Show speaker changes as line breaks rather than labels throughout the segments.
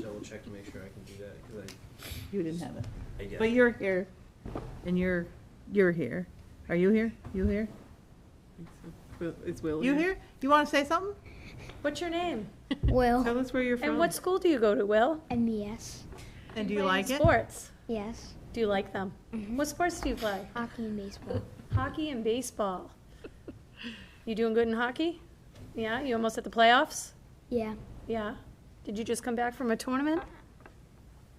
double check to make sure I can do that, because
You didn't have it.
I, I guess.
But you're here, and you're, you're here. Are you here? You here?
It's Will.
You here? You want to say something?
What's your name?
Tell
Will,
us where you're from.
And what school do you go to, Will?
MES,
And do you
Play any
like it?
Sports.
yes,
Do you like them? What sports do you play?
hockey and baseball.
Hockey and baseball. You doing good in hockey? Yeah, you almost at the playoffs?
Yeah,
Yeah. Did you just come back from a tournament?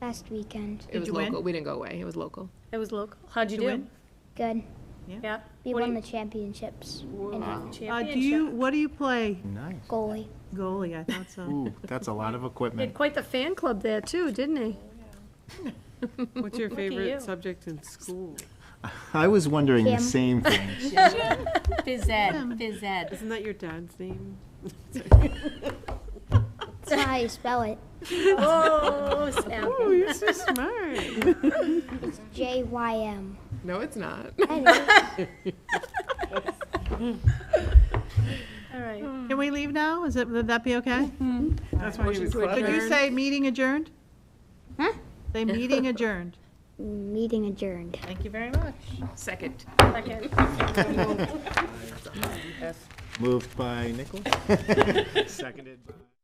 last weekend.
It was
you win?
local. We didn't go away. It was local.
It was local. How'd you
Did you
do?
win?
Good.
Yeah.
We
What do
won
you-
the championships in
Uh, do you,
Championship.
what do you play?
Nice.
goalie.
Goalie, I thought so.
Ooh, that's a lot of
He had
equipment.
quite the fan club there too, didn't he?
What's your
Look at you.
favorite subject in school?
I was wondering the
Kim.
same thing.
Phys ed, phys ed.
Isn't that your dad's name?
That's how you spell it.
Oh, snap.
Oh, you're so smart.
J Y M.
No, it's not.
I know.
All right.
Can we leave now? Is it, would that be okay?
That's why he was
Could you say meeting adjourned?
Huh?
Say meeting adjourned.
Meeting adjourned.
Thank you very much.
Second.
Second.
Moved by Nichols, seconded by.